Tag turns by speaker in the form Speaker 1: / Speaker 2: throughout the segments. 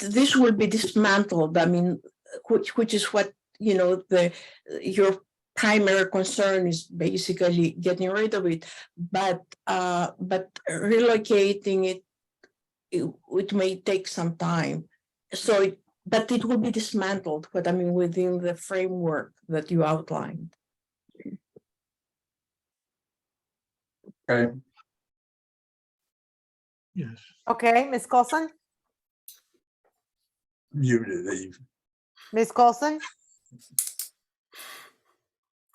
Speaker 1: this will be dismantled. I mean, which, which is what, you know, the, your primary concern is basically getting rid of it. But, uh, but relocating it, it, it may take some time. So, it- but it will be dismantled, but I mean, within the framework that you outlined.
Speaker 2: Okay,
Speaker 3: Yes,
Speaker 4: Okay, Ms. Coulson,
Speaker 2: muted Eve.
Speaker 4: Ms. Coulson,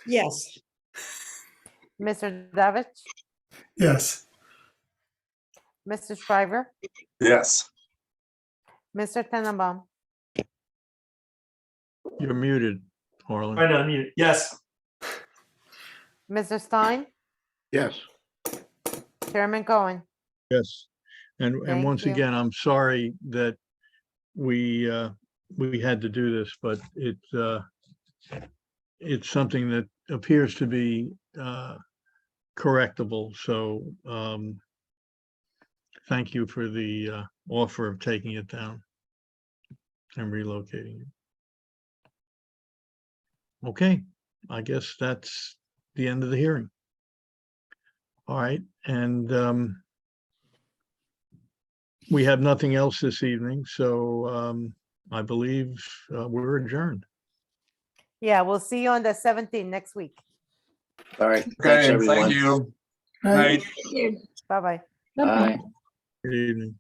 Speaker 5: Yes.
Speaker 4: Mr. Davich,
Speaker 6: Yes,
Speaker 4: Mr. Shriver,
Speaker 2: Yes,
Speaker 4: Mr. Tenenbaum.
Speaker 3: you're muted, Harlan.
Speaker 7: Trying to unmute. Yes,
Speaker 4: Mr. Stein? Yes. Chairman Cohen?
Speaker 3: Yes. And, and
Speaker 4: Thank
Speaker 3: once
Speaker 4: you.
Speaker 3: again, I'm sorry that we, uh, we had to do this, but it, uh, it's something that appears to be, uh, correctable. So, um, thank you for the, uh, offer of taking it down and relocating it. Okay, I guess that's the end of the hearing. All right, and, um, we have nothing else this evening, so um, I believe uh, we're adjourned.
Speaker 4: Yeah, we'll see you on the 17th next week.
Speaker 8: All right. Thanks,
Speaker 2: okay,
Speaker 8: everyone.
Speaker 2: thank you.
Speaker 6: right.
Speaker 2: Night.
Speaker 4: Bye-bye.
Speaker 8: Bye.
Speaker 3: Good evening.